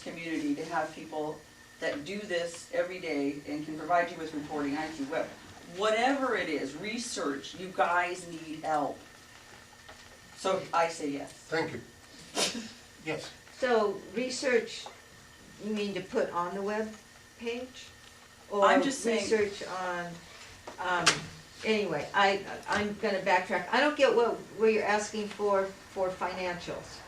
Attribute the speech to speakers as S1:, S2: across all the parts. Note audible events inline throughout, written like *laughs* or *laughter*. S1: community to have people that do this every day and can provide you with reporting, IT, web, whatever it is, research, you guys need help. So I say yes.
S2: Thank you. Yes,
S3: So research, you mean to put on the web page?
S1: I'm just saying-
S3: Or research on, um, anyway, I, I'm gonna backtrack. I don't get what, what you're asking for, for financials.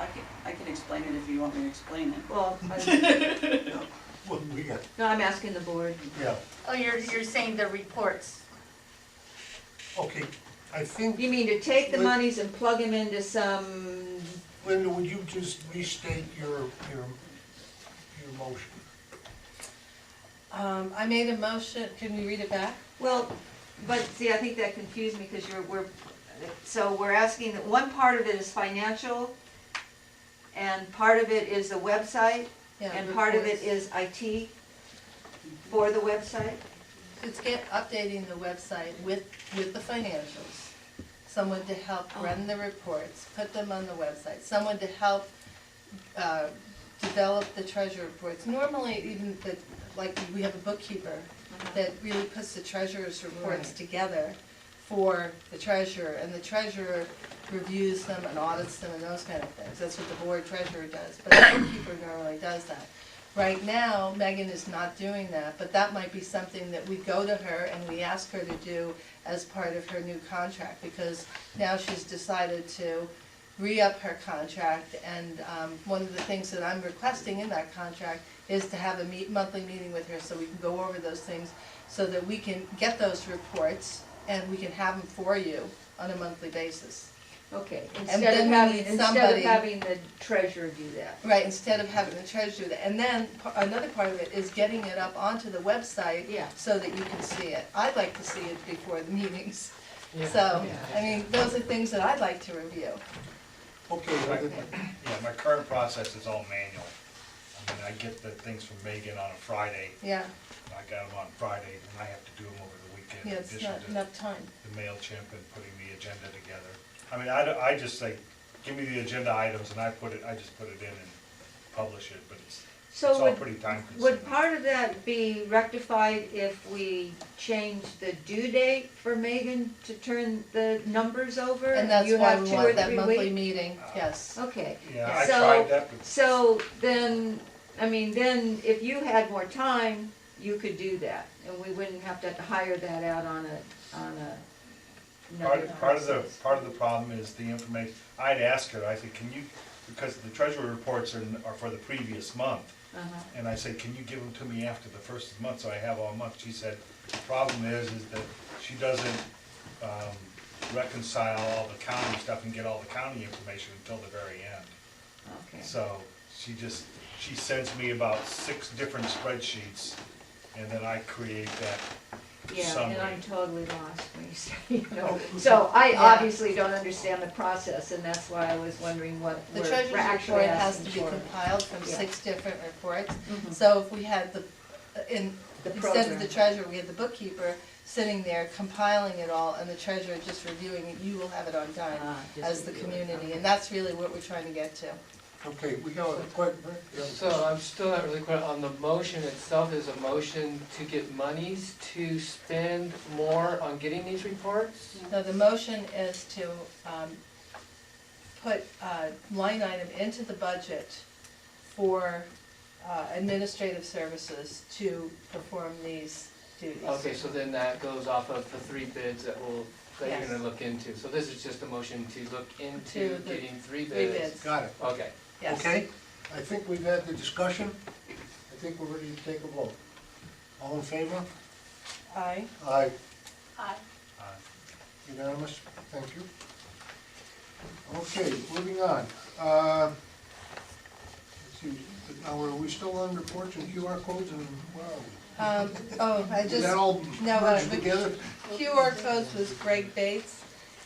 S1: I can, I can explain it if you want me to explain it. *laughs*
S3: Well, I-
S2: well, we got,
S3: no, I'm asking the board.
S2: yeah,
S4: Oh, you're, you're saying the reports.
S2: okay, I think,
S3: You mean to take the
S2: Wait.
S3: monies and plug them into some,
S2: Linda, would you just restate your, your, your motion?
S5: Um, I made a motion, can we read it back?
S3: well, but see, I think that confused me because you're, we're, so we're asking that one part of it is financial and part of it is the website
S5: Yeah,
S3: And part of it
S5: reports.
S3: is IT for the website?
S5: It's get, updating the website with, with the financials. Someone to help
S3: Oh.
S5: run the reports, put them on the website, someone to help, uh, develop the treasurer reports. Normally, even the, like, we have a bookkeeper
S3: Uh-huh.
S5: that really puts the treasurer's reports together for the treasurer, and the treasurer reviews them and audits them and those kind of things. That's what the board treasurer does, but the bookkeeper normally does that. Right now, Megan is not doing that, but that might be something that we go to her and we ask her to do as part of her new contract, because now she's decided to re-up her contract, and, um, one of the things that I'm requesting in that contract is to have a meet, monthly meeting with her, so we can go over those things, so that we can get those reports, and we can have them for you on a monthly basis.
S3: Okay,
S5: then
S3: instead of
S5: we
S3: having,
S5: need
S3: instead of
S5: somebody-
S3: having the treasurer do that.
S5: Right, instead of having the treasurer do that. And then, pa- another part of it is getting it up onto the website.
S3: Yeah.
S5: So that you can see it. I'd like to see it before the *laughs* meetings. So, I mean, those are things that I'd like to review.
S2: Okay, I think-
S6: Yeah, my current process is all manual. I mean, I get the things from Megan on a Friday,
S5: Yeah,
S6: I got them on Friday, and I have to do them over the weekend
S5: yeah,
S6: in
S5: it's
S6: addition
S5: not
S6: to
S5: enough time.
S6: the MailChimp and putting the agenda together. I mean, I, don't- I just like, give me the agenda items and I put it, I just put it in and publish it, but it's, it's
S3: So
S6: all
S3: would-
S6: pretty time consuming.
S3: Would part of that be rectified if we change the due date for Megan to turn the numbers over?
S5: And that's
S3: you
S5: why
S3: have
S5: we
S3: two or
S5: want that
S3: three
S5: monthly
S3: weeks? Ah.
S5: meeting, yes.
S3: Okay.
S6: Yeah, I
S3: So-
S6: tried that, but
S3: So then, I mean, then if you had more time, you could do that, and we wouldn't have to hire that out on a, on a. another
S6: Part, part of the,
S3: process.
S6: part of the problem is the information, I'd ask her, I said, can you, because the treasury reports are, are for the previous month.
S3: Uh-huh.
S6: And I said, can you give them to me after the first of the month, so I have all month? She said, the problem is, is that she doesn't um, reconcile all the county stuff and get all the county information until the very end.
S3: Okay.
S6: So she just, she sends me about six different spreadsheets, and then I create that
S3: Yeah, and
S6: summary. Oh.
S3: I'm totally lost when you *laughs* say, you know, so I
S5: Yeah.
S3: obviously don't understand the process, and that's why I was wondering what
S5: The
S3: we're
S5: treasurer's
S3: we're actually
S5: report has
S3: asking
S5: to be
S3: for.
S5: compiled from
S3: Yeah.
S5: six different reports.
S3: Mhm.
S5: So if we had the, uh, in,
S3: The
S5: instead of
S3: program.
S5: the treasurer, we had the bookkeeper sitting there compiling it all and the treasurer just reviewing it, you will have it on time
S3: Ah, just
S5: as
S3: review
S5: the
S3: it,
S5: community,
S3: okay.
S5: and that's really what we're trying to get to.
S2: okay, we got a question, Rick? You have a
S7: So I'm still not really clear on the motion itself, is a motion to get monies to spend more on getting these reports?
S5: Now, the motion is to um, put a line item into the budget for uh, administrative services to perform these duties.
S7: Okay, so then that goes off of the three bids that we'll, that you're
S5: Yes.
S7: gonna look into. So this is just a motion to look
S5: To
S7: into
S5: the
S7: getting three bids?
S5: Three bids,
S2: Got it,
S7: Okay,
S5: yes.
S2: okay? I think we've had the discussion, I think we're ready to take a vote. All in favor?
S5: Aye.
S2: Aye.
S4: Aye.
S6: Uh,
S2: Unanimous, thank you. Okay, moving on. Uh, Let's see, now are we still on reports and QR codes and, wow,
S5: Um, Oh, I
S2: is
S5: just,
S2: that all
S5: no, uh,
S2: merged
S5: the-
S2: together?
S5: QR codes was Greg Bates,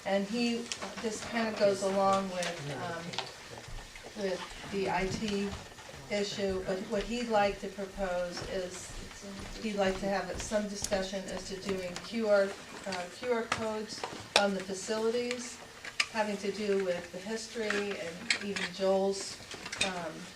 S5: and he, this kind of goes along with, um, with the IT issue, but what he'd like to propose is, he'd like to have some discussion as to doing QR, uh, QR codes on the facilities, having to do with the history and even Joel's, um,